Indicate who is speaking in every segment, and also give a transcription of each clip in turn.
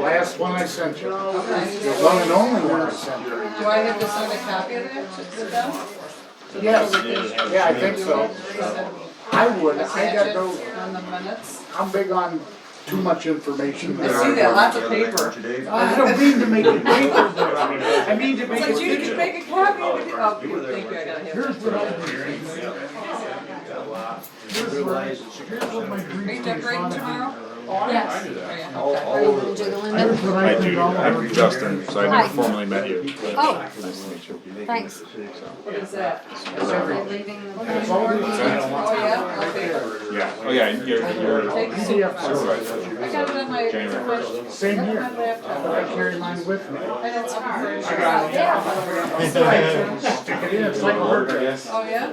Speaker 1: last one I sent you. The
Speaker 2: Okay.
Speaker 1: one and only one I sent you.
Speaker 2: Do I have to send a copy of that to to them?
Speaker 1: Yes,
Speaker 3: Yeah.
Speaker 1: yeah, I think so. I would, I
Speaker 2: Attach
Speaker 1: got
Speaker 2: it
Speaker 1: no,
Speaker 2: on the minutes?
Speaker 1: I'm big on too much information.
Speaker 2: I see that, lots of paper.
Speaker 1: I don't mean to make it paper, but I mean to make
Speaker 2: But you
Speaker 1: it
Speaker 2: can
Speaker 1: digital.
Speaker 2: make a copy of it, oh, thank you, I gotta have
Speaker 1: Here's
Speaker 2: that.
Speaker 1: what I, here's what my
Speaker 2: Are
Speaker 1: brief
Speaker 2: you
Speaker 1: is
Speaker 2: decorating
Speaker 1: on.
Speaker 2: tomorrow?
Speaker 4: Yes.
Speaker 2: Oh, yeah,
Speaker 5: All,
Speaker 2: okay.
Speaker 5: all over the.
Speaker 4: Gentlemen,
Speaker 1: Here's what I
Speaker 3: I
Speaker 1: think
Speaker 3: do,
Speaker 1: all of
Speaker 3: I'm
Speaker 1: our-
Speaker 3: Justin, so I
Speaker 4: Hi.
Speaker 3: never formally met you.
Speaker 4: Oh.
Speaker 3: Nice to meet you.
Speaker 4: thanks.
Speaker 2: What is that?
Speaker 4: We're leaving the-
Speaker 1: It's all in the-
Speaker 2: Oh, yeah, okay.
Speaker 3: Yeah, oh yeah, and you're, you're
Speaker 2: Take a seat.
Speaker 1: PDF file.
Speaker 3: supervisor.
Speaker 2: I got it on my,
Speaker 3: January
Speaker 2: my-
Speaker 1: Same
Speaker 2: my
Speaker 1: here,
Speaker 2: laptop.
Speaker 1: but I carry mine with me.
Speaker 2: And it's hard.
Speaker 1: Stick it in, it's like a hard drive.
Speaker 2: Oh, yeah?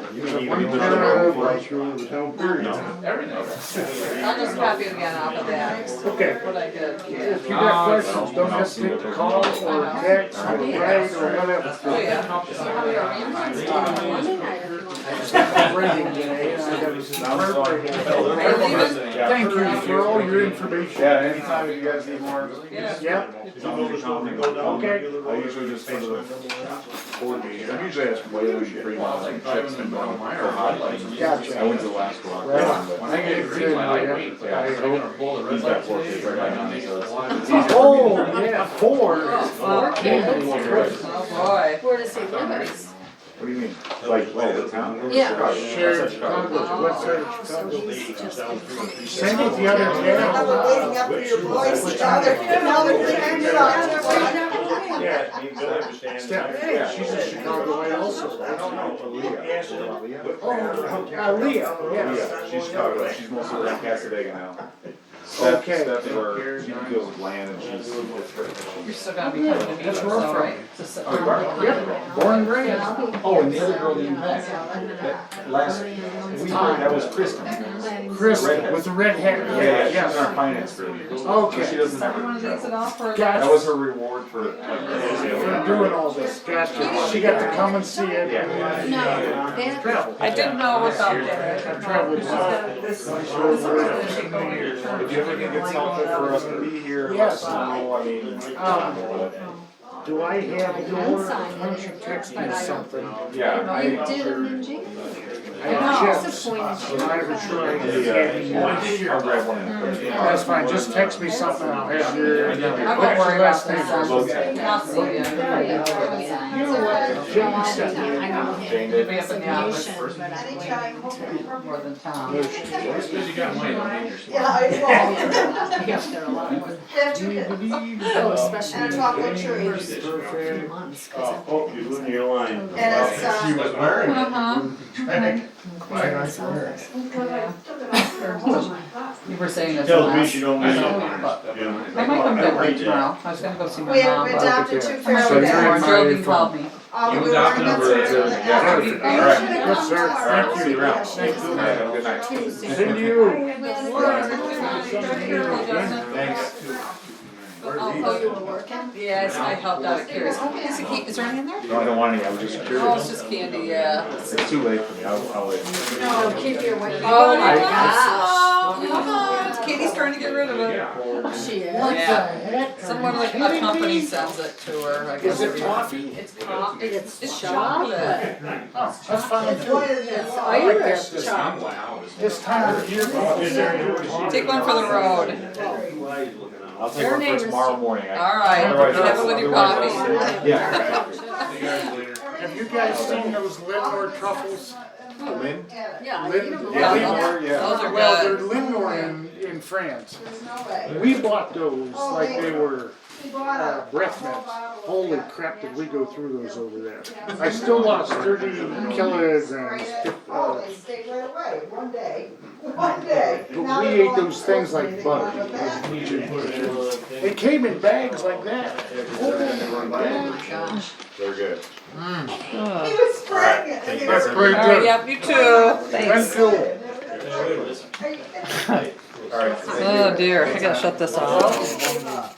Speaker 2: I'll just copy it again off of that,
Speaker 1: Okay,
Speaker 2: what I did.
Speaker 1: if you got questions, don't hesitate to call or text or write or
Speaker 2: Oh,
Speaker 1: whatever.
Speaker 2: yeah. So how do you arrange it?
Speaker 1: I'm ready today, and I got a
Speaker 2: Are you leaving?
Speaker 1: Thank you for all your information.
Speaker 6: Yeah, anytime you guys need more.
Speaker 2: Yeah.
Speaker 1: Yep,
Speaker 6: Okay.
Speaker 1: Okay.
Speaker 3: I usually just go to the board meeting, I'm usually asking whether we should bring my own chips and go on my own hot lights. I
Speaker 1: gotcha.
Speaker 3: went to the last one.
Speaker 1: Well,
Speaker 3: but
Speaker 6: When I get a green light, I wait.
Speaker 1: Yeah.
Speaker 6: I don't pull the red
Speaker 3: He's
Speaker 6: light
Speaker 3: got four kids right now, and so it's-
Speaker 1: Oh, yeah, four.
Speaker 2: Oh,
Speaker 1: Four.
Speaker 2: Oh, boy.
Speaker 4: We're to St. Louis.
Speaker 3: What do you mean? Like, oh, the town?
Speaker 4: Yeah.
Speaker 1: Shared condos, what side of
Speaker 4: So
Speaker 1: Chicago?
Speaker 4: he's just.
Speaker 1: Same with the other
Speaker 7: I've been
Speaker 1: town.
Speaker 7: waiting up for your voice, now they're, now they're cleaning it up.
Speaker 8: Yeah, you don't understand.
Speaker 1: Yeah, she's a Chicagoite also.
Speaker 3: I don't know. Aaliyah.
Speaker 1: Oh, uh, Leah, yes.
Speaker 3: Aaliyah, she's Chicago, she's mostly like Casadega now. Steph,
Speaker 1: Okay.
Speaker 3: Steph, her, she deals with land and she's.
Speaker 2: You're still gonna be coming to me,
Speaker 1: That's
Speaker 2: so,
Speaker 1: where I'm from.
Speaker 2: right? Just
Speaker 3: Oh,
Speaker 2: sit down.
Speaker 1: Yep, born and raised.
Speaker 6: Oh, and the other girl you met, that last week, that was Kristen.
Speaker 1: Chris with the red hat.
Speaker 3: Yeah, yeah, she's in
Speaker 1: Yes.
Speaker 3: our finance group. So she
Speaker 1: Okay.
Speaker 3: doesn't
Speaker 2: Start one
Speaker 3: have
Speaker 2: of
Speaker 3: to
Speaker 2: these
Speaker 3: travel.
Speaker 2: and all for.
Speaker 1: Gotcha.
Speaker 3: That was her reward for like.
Speaker 1: For doing all this, gotcha. She got to come and see it.
Speaker 3: Yeah.
Speaker 4: No, that,
Speaker 2: I didn't know what's up there. I didn't know.
Speaker 1: Traveled. by.
Speaker 3: If you ever think it's helpful for us to be here, let
Speaker 1: Yes.
Speaker 3: us know, I mean.
Speaker 1: Um, Do I have your, why don't you text me something?
Speaker 3: Yeah, I.
Speaker 4: you did them in January.
Speaker 1: I
Speaker 4: I'm
Speaker 1: have chips.
Speaker 4: disappointed.
Speaker 1: And I'm not sure I can get any
Speaker 3: The,
Speaker 1: more.
Speaker 3: uh, I'll grab one. and put it in.
Speaker 1: That's fine, just text me something, I'll have your.
Speaker 3: I know.
Speaker 2: I won't worry about that.
Speaker 3: Okay.
Speaker 2: I'll see you.
Speaker 1: You know what, Jamie said,
Speaker 4: I don't have
Speaker 3: Jane
Speaker 2: We'll
Speaker 3: did.
Speaker 2: be up in the office
Speaker 7: Anytime.
Speaker 2: more than Tom.
Speaker 7: Yeah, I
Speaker 4: Yes, there are a lot more.
Speaker 7: know.
Speaker 1: do you believe
Speaker 4: Oh,
Speaker 1: that?
Speaker 4: especially.
Speaker 7: And a chocolate cherry.
Speaker 4: First few months, 'cause I'm-
Speaker 8: Oh, you're losing your line.
Speaker 7: And it's, uh,
Speaker 6: was wearing
Speaker 2: Uh-huh. Yeah.
Speaker 1: Um,
Speaker 2: You were saying this
Speaker 8: Tells me
Speaker 2: last.
Speaker 8: she don't
Speaker 2: I
Speaker 8: listen.
Speaker 2: know, but
Speaker 8: Yeah.
Speaker 2: I might come
Speaker 8: I
Speaker 2: visit
Speaker 8: did.
Speaker 2: tomorrow. I was gonna go see my
Speaker 7: We have
Speaker 2: mom, but.
Speaker 7: adopted two
Speaker 2: I'm
Speaker 7: fairy
Speaker 2: over there.
Speaker 7: tales.
Speaker 2: Jordan called me.
Speaker 7: Um, we were in the.
Speaker 1: Perfect.
Speaker 3: All right.
Speaker 1: Yes, sir.
Speaker 3: All right,
Speaker 1: Thank
Speaker 3: see you
Speaker 1: you.
Speaker 3: around. All right, have a good night.
Speaker 1: Send you.
Speaker 3: Thanks.
Speaker 2: Oh, you were working? Yes, I helped out at Curious. Is it ca- is there any in there?
Speaker 3: No, I don't want any, I was just
Speaker 2: Oh, it's
Speaker 3: curious.
Speaker 2: just candy, yeah.
Speaker 3: It's too late for me, I'll, I'll wait.
Speaker 4: No, keep your weight.
Speaker 2: Oh my
Speaker 4: gosh.
Speaker 2: gosh. Come on, Oh, Katie's trying to get rid of it.
Speaker 4: She is.
Speaker 2: Yeah. Someone like a company sells it to her, I guess.
Speaker 1: Is it
Speaker 2: every-
Speaker 1: coffee?
Speaker 2: It's coffee. It's, it's chocolate.
Speaker 4: chocolate.
Speaker 1: Oh, that's fine
Speaker 7: It's one
Speaker 1: too.
Speaker 7: of the.
Speaker 4: Irish chocolate.
Speaker 1: This time of year.
Speaker 2: Take one for the road.
Speaker 3: I'll take
Speaker 4: Your
Speaker 3: one for
Speaker 4: neighbors-
Speaker 3: tomorrow morning. I-
Speaker 2: All right,
Speaker 3: Otherwise-
Speaker 2: you have it with your
Speaker 3: otherwise-
Speaker 2: coffee.
Speaker 3: Yeah.
Speaker 1: Have you guys seen those Lindor truffles?
Speaker 3: Lynn?
Speaker 4: Yeah. I
Speaker 1: Lynn-
Speaker 4: eat 'em.
Speaker 1: Yeah,
Speaker 3: Lindor, yeah.
Speaker 2: Those are
Speaker 1: Well, they're
Speaker 2: good.
Speaker 1: Lindor in, in France.
Speaker 7: There's no way.
Speaker 1: We bought those like they were
Speaker 7: He bought
Speaker 1: uh,
Speaker 7: a.
Speaker 1: breath
Speaker 7: whole
Speaker 1: mints.
Speaker 7: bottle of
Speaker 1: Holy
Speaker 7: that.
Speaker 1: crap, did we go through those over there. I still lost thirty
Speaker 7: Sprayed
Speaker 1: kilograms.
Speaker 7: it. Oh,
Speaker 1: uh,
Speaker 7: they stayed right away, one day, one day.
Speaker 1: But we ate those things like butter. They came in bags like that. Oh, my gosh.
Speaker 3: They're good.
Speaker 7: He was spraying it. and they
Speaker 1: That's
Speaker 7: were-
Speaker 1: pretty
Speaker 2: All right,
Speaker 1: good.
Speaker 2: yep, you too. Thanks.
Speaker 1: Renfield,
Speaker 7: Are you kidding me?
Speaker 3: All right. thank you.
Speaker 2: Oh dear, I gotta shut this off.